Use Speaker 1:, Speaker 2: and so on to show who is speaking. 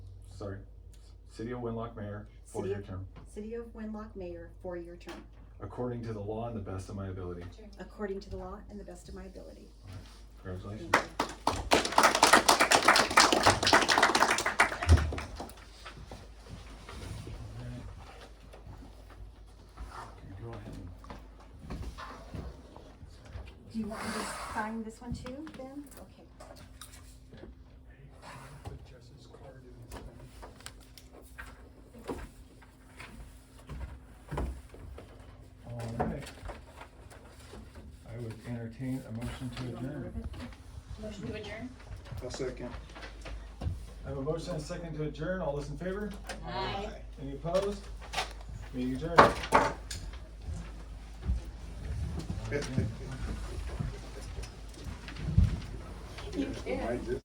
Speaker 1: sorry, City of Winlock Mayor,
Speaker 2: City
Speaker 1: four-year
Speaker 2: of-
Speaker 1: term,
Speaker 2: City of Wenlock Mayor, four-year term,
Speaker 1: according to the law and the best of my ability.
Speaker 2: according to the law and the best of my ability.
Speaker 1: Congratulations.
Speaker 2: Thank you.
Speaker 1: Go ahead and
Speaker 2: Do you want me to sign this one too, Ben? Okay.
Speaker 3: Put Jess's card in his thing.
Speaker 1: All right. I would entertain a motion to
Speaker 2: You want me to
Speaker 1: adjourn.
Speaker 2: move it?
Speaker 4: Motion to adjourn?
Speaker 3: I'll second.
Speaker 1: I have a motion and a second to adjourn. All those in favor?
Speaker 4: Aye.
Speaker 1: Any opposed? Meeting adjourned.
Speaker 3: You can.